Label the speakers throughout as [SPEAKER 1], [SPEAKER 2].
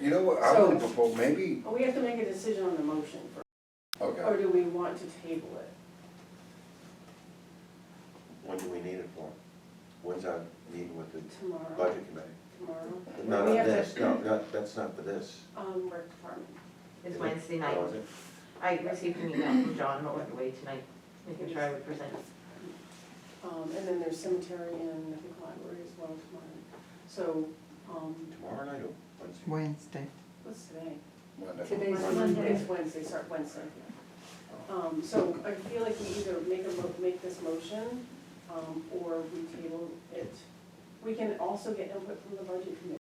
[SPEAKER 1] You know what, I
[SPEAKER 2] So-
[SPEAKER 1] would propose, maybe,
[SPEAKER 2] Well, we have to make a decision on the motion, first, or
[SPEAKER 1] okay,
[SPEAKER 2] do we want to table it?
[SPEAKER 3] When do we need it for? When's our meeting with the
[SPEAKER 2] Tomorrow,
[SPEAKER 3] budget committee?
[SPEAKER 2] tomorrow,
[SPEAKER 3] No,
[SPEAKER 2] We
[SPEAKER 3] not
[SPEAKER 2] have
[SPEAKER 3] this,
[SPEAKER 2] to-
[SPEAKER 3] no, not, that's not for this.
[SPEAKER 2] um, rec department.
[SPEAKER 4] It's Wednesday night.
[SPEAKER 3] Oh, is it?
[SPEAKER 4] I received an email from John while I was away tonight, making sure I would present.
[SPEAKER 2] Um, and then there's cemetery and I think library as well tomorrow. So, um,
[SPEAKER 3] Tomorrow night or Wednesday?
[SPEAKER 5] Wednesday.
[SPEAKER 2] what's today?
[SPEAKER 1] Monday.
[SPEAKER 2] Today's
[SPEAKER 1] Monday.
[SPEAKER 2] Monday, it's Wednesday, sorry, Wednesday. Um, so I feel like we either make a mo, make this motion, um, or we table it. We can also get input from the budget committee,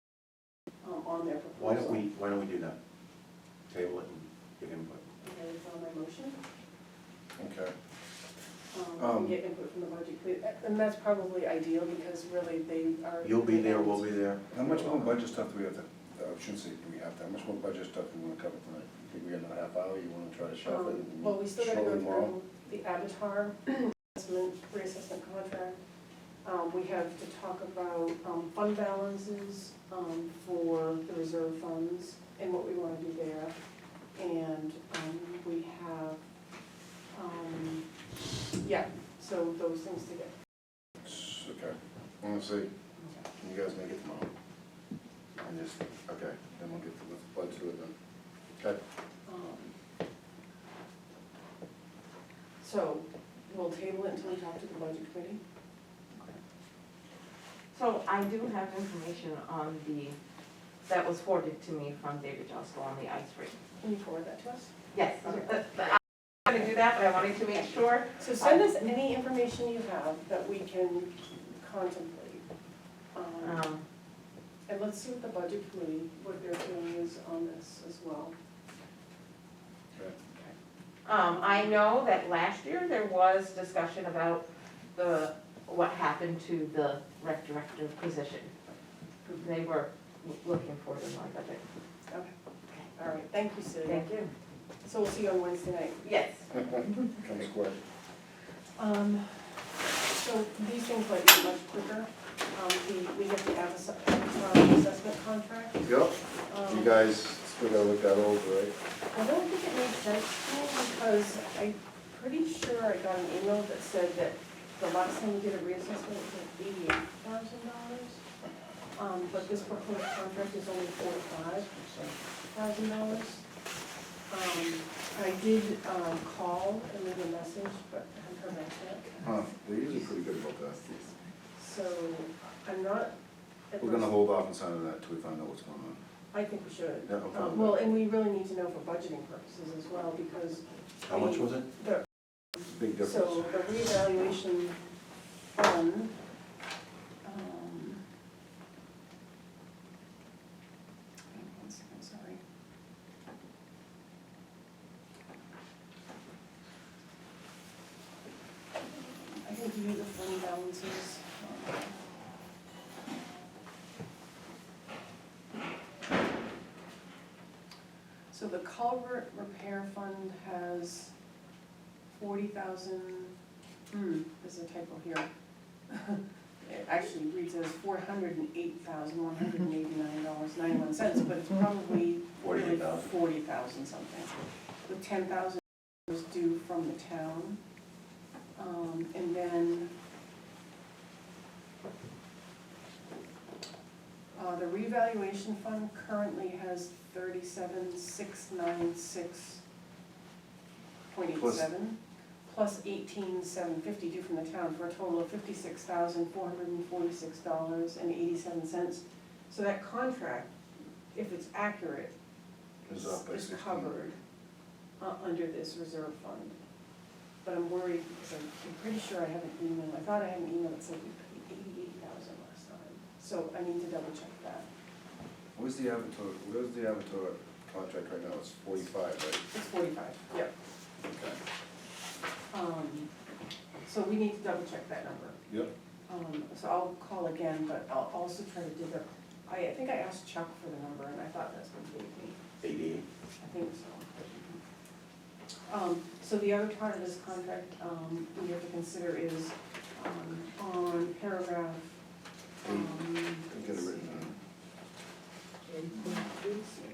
[SPEAKER 2] um, on their proposal.
[SPEAKER 3] Why don't we, why don't we do that? Table it and give input.
[SPEAKER 2] Okay, it's on my motion.
[SPEAKER 1] Okay,
[SPEAKER 2] Um,
[SPEAKER 1] Um,
[SPEAKER 2] we can get input from the budget committee, and that's probably ideal because really they are.
[SPEAKER 3] You'll be there, we'll be there.
[SPEAKER 1] how much more budget stuff do we have to, uh, I shouldn't say do we have to, how much more budget stuff do we wanna cover tonight? Think we got another half hour, you wanna try to shuffle it?
[SPEAKER 2] Um,
[SPEAKER 1] and
[SPEAKER 2] Well, we still gotta
[SPEAKER 1] show
[SPEAKER 2] go
[SPEAKER 1] them all?
[SPEAKER 2] through the Avatar assessment, reassessment contract. Um, we have to talk about, um, fund balances, um, for the reserve funds and what we wanna do there. And, um, we have, um, yeah, so those things to get.
[SPEAKER 1] S- Okay, wanna see, can you guys make it tomorrow? And just, okay, then we'll get to, let's budget it then. Okay,
[SPEAKER 2] Um, So, we'll table it until we talk to the budget committee.
[SPEAKER 4] So I do have information on the, that was forwarded to me from David Josko on the ice rink.
[SPEAKER 2] Can you forward that to us?
[SPEAKER 4] Yes, I'm gonna do that, but I wanted to make sure.
[SPEAKER 2] So send us any information you have that we can contemplate. Um,
[SPEAKER 4] Um,
[SPEAKER 2] And let's see what the budget committee, what their feeling is on this as well.
[SPEAKER 4] Um, I know that last year there was discussion about the, what happened to the rec director position. They were looking for it in my budget.
[SPEAKER 2] Okay, all right, thank you, Sue.
[SPEAKER 4] Thank you.
[SPEAKER 2] So we'll see you on Wednesday night.
[SPEAKER 4] Yes.
[SPEAKER 1] come square.
[SPEAKER 2] Um, so these things might be much quicker. Um, we, we have to have a s- uh, assessment contract.
[SPEAKER 1] Yep,
[SPEAKER 2] Um,
[SPEAKER 1] you guys still gotta look that over, right?
[SPEAKER 2] I don't think it made sense to me because I'm pretty sure I got an email that said that the last time we did a reassessment was like eighty-eight thousand dollars. Um, but this proposed contract is only forty-five thousand dollars. Um, I did, um, call and leave a message, but I haven't heard back yet.
[SPEAKER 1] Huh, they're usually pretty good about that.
[SPEAKER 2] So I'm not. at
[SPEAKER 1] We're gonna
[SPEAKER 2] first-
[SPEAKER 1] hold off on signing that till we find out what's going on.
[SPEAKER 2] I think we should.
[SPEAKER 3] Yeah, okay.
[SPEAKER 2] Um, Well, and we really need to know for budgeting purposes as well because
[SPEAKER 3] How much was it?
[SPEAKER 2] the
[SPEAKER 1] Big
[SPEAKER 2] So
[SPEAKER 1] difference.
[SPEAKER 2] the reevaluation fund, um. hang on one second, sorry. I can give you the fund balances. So the culvert repair fund has forty thousand, hmm, there's a typo here. It actually reads as four hundred and eight thousand, one hundred and eighty-nine dollars, ninety-one cents, but it's probably really
[SPEAKER 3] 48,000.
[SPEAKER 2] forty thousand something. With ten thousand was due from the town. Um, and then uh, the revaluation fund currently has thirty-seven, six, nine, six point eight seven, plus eighteen, seven fifty due from the town, for a total of fifty-six thousand, four hundred and forty-six dollars and eighty-seven cents. So that contract, if it's accurate,
[SPEAKER 1] It's up by
[SPEAKER 2] is
[SPEAKER 1] 16.
[SPEAKER 2] covered uh, under this reserve fund. But I'm worried, because I'm I'm pretty sure I have an email, I thought I had an email that said we paid eighty-eight thousand last time. So I need to double check that.
[SPEAKER 1] Where's the Avatar, where's the Avatar contract right now? It's forty-five, right?
[SPEAKER 2] It's forty-five. Yep.
[SPEAKER 1] Okay.
[SPEAKER 2] Um, so we need to double check that number.
[SPEAKER 1] Yep.
[SPEAKER 2] Um, so I'll call again, but I'll also try to dig up, I, I think I asked Chuck for the number and I thought that's what he gave me.
[SPEAKER 3] Eighty-eight.
[SPEAKER 2] I think so. Um, so the other part of this contract, um, we have to consider is, um, on paragraph, um,
[SPEAKER 1] Get it written down.